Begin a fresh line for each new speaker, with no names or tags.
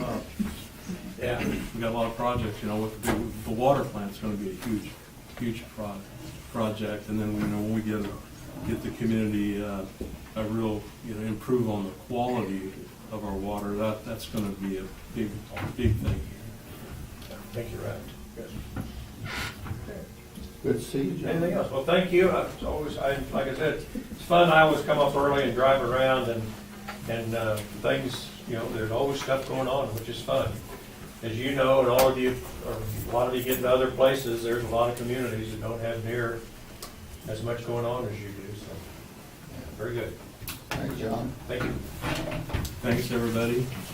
Yeah.
We got a lot of projects, you know, with the, big- the water plant's gonna be a huge, huge pro- project, and then, you know, when we get, get the community, uh, a real, you know, improve on the quality of our water, that, that's gonna be a big, big thing.
I think you're right. Yes.
Good to see you, John.
Anything else? Well, thank you. I- It's always, I, like I said, it's fun. I always come up early and drive around and, and, uh, things, you know, there's always stuff going on, which is fun. As you know, and all of you, or a lot of you get into other places, there's a lot of communities that don't have near as much going on as you do, so. yeah, Very good.
Thanks, John.
Thank you.
Thanks, everybody.